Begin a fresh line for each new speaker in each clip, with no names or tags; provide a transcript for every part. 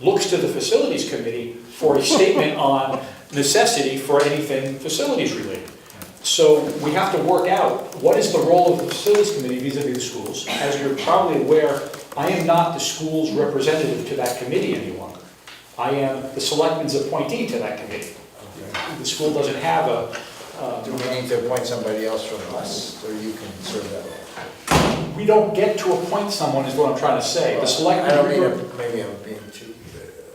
looks to the facilities committee for a statement on necessity for anything facilities related. So we have to work out, what is the role of the facilities committee vis-à-vis the schools? As you're probably aware, I am not the school's representative to that committee any longer. I am the selectman's appointee to that committee. The school doesn't have a, uh,
Do we need to appoint somebody else from us, or you can serve that role?
we don't get to appoint someone is what I'm trying to say. The selectmen.
I don't mean, to- maybe I'm being too,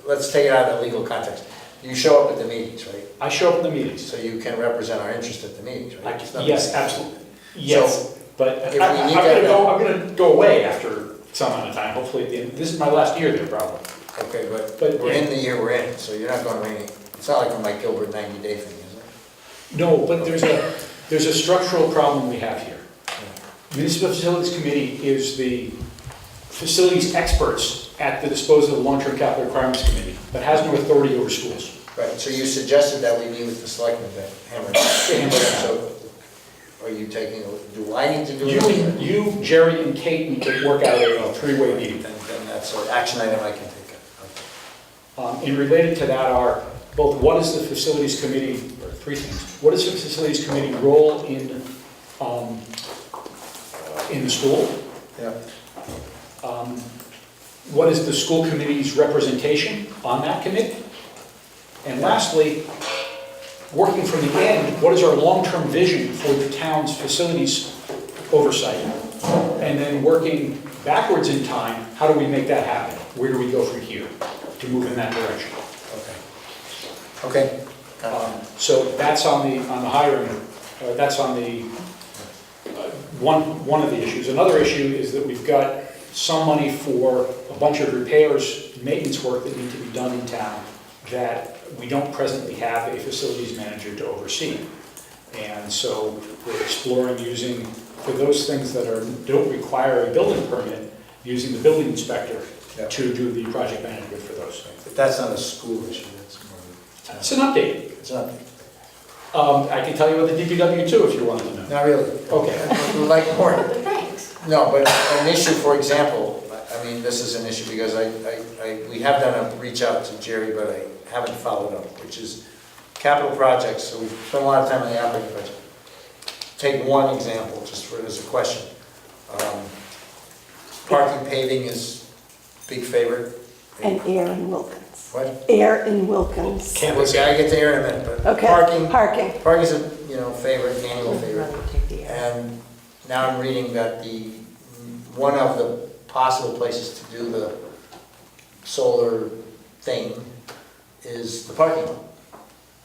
let's take it out of the legal context. You show up at the meetings, right?
I show up at the meetings.
So you can represent our interest at the meetings,
I-
right? It's not-
yes, absolutely. Yes, but
if
I-
we
I- I'm
need
gonna
that-
go, I'm gonna go away after some amount of time, hopefully at the end. This is my last year there probably.
Okay, but
But-
we're in the year we're in, so you're not going to any, it's not like a Mike Gilbert 90-day thing, is it?
No, but there's a, there's a structural problem we have here. Municipal Facilities Committee is the facilities experts at the disposal of the Long-Term Capital Requirements Committee, but has no authority over schools.
Right, so you suggested that we meet with the selectmen to hammer it out. So are you taking, a- do I need to do
You,
it?
and- you, Jerry, and Kate need to work out a three-way meeting.
Then then that's an action item I can take up.
Um, And related to that are both, what is the facilities committee, or three things, what is the facilities committee role in, um, in the school?
Yeah.
Um, What is the school committee's representation on that committee? And lastly, working from the end, what is our long-term vision for the town's facilities oversight? And then working backwards in time, how do we make that happen? Where do we go from here to move in that direction?
Okay. Okay.
Um,
Um,
So that's on the, on the hiring, uh, that's on the, uh, one, one of the issues. Another issue is that we've got some money for a bunch of repairs, maintenance work that need to be done in town that we don't presently have a facilities manager to oversee. And so we're exploring using, for those things that are, don't require a building permit, using the building inspector
Yeah.
to do the project management for those things.
But that's not a school issue, that's more of a
It's an update.
It's not,
Um, I can tell you about the DPW too, if you wanted to know.
not really.
Okay.
We'd Like more.
But thanks.
No, but an issue, for example, I I mean, this is an issue because I, I, I, we have done a reach out to Jerry, but I haven't followed up, which is capital projects, so we've spent a lot of time on the operating budget. Take one example, just for, as a question. Um, Parking paving is big favorite.
And Aaron Wilkins.
What?
Aaron Wilkins.
Can't
Well,
listen.
I get to Aaron in a minute, but
Okay,
parking,
parking.
parking's a, you know, favorite, annual favorite.
Rather take the uh, air.
And now I'm reading that the, one of the possible places to do the solar thing is the parking lot,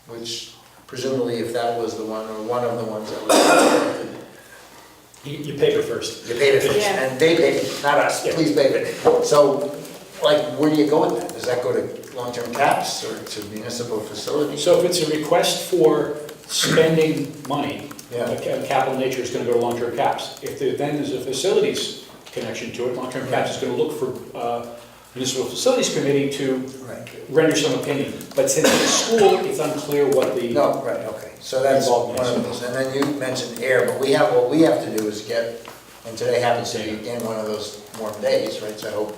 which presumably if that was the one, or one of the ones that was,
You, you pay it first.
you paid it first,
Yeah.
and they paid it, not us,
Yeah.
please pay it. So, like, where do you go with that? Does that go to long-term caps or to municipal facilities?
So if it's a request for spending money,
Yeah.
a ca- capital nature is gonna go to long-term caps. If there then is a facilities connection to it, long-term caps is gonna look for, uh, municipal facilities committee to
Right.
render some opinion. But since it's school, it's unclear what the.
No, right, okay, so that's one
Involvement.
of those, and then you mentioned air, but we have, what we have to do is get, and today happens to be again one of those warm days, right, so I hope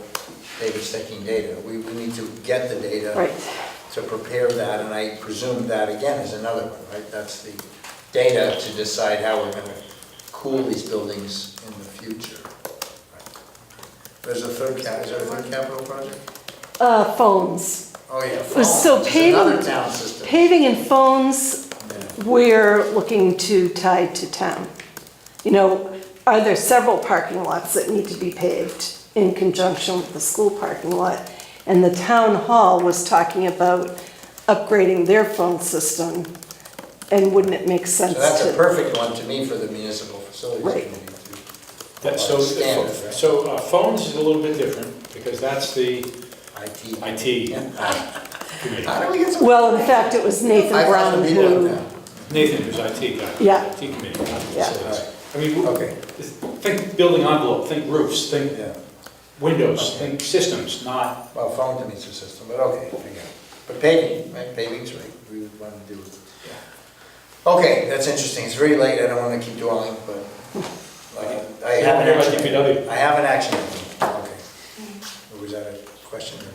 David's taking data, we, we need to get the data
Right.
to prepare that, and I presume that again is another one, right, that's the data to decide how we're gonna cool these buildings in the future. There's a third cap, is there a third capital project?
Uh, phones.
Oh, yeah.
So
It's Another
paving-
town system.
Paving and phones,
Yeah.
we're looking to tie to town. You know, are there several parking lots that need to be paved in conjunction with the school parking lot? And the town hall was talking about upgrading their phone system, and wouldn't it make sense
So
to?
that's a perfect one to me for the municipal facilities
Right.
committee
That-
to
so, uh,
stand for
so uh, phones is a little bit different, because that's the
IT.
IT committee.
How do we get some?
Well, in fact, it was Nathan
I thought
Brown
the meeting
who.
was now.
Nathan, who's IT guy.
Yeah.
IT committee, not
Yeah.
facilities. I mean, w-
Okay.
think building envelope, think roofs, think
Yeah,
windows, think systems, not,
well, phone to meter system, but okay, I got it. But paving, right, paving's right, we would want to do. Okay, that's interesting, it's very late, I don't want to keep dwelling, but uh, I
You
have
wanna
an
hear about
action.
DPW?
I have an action, item. okay. Was that a question?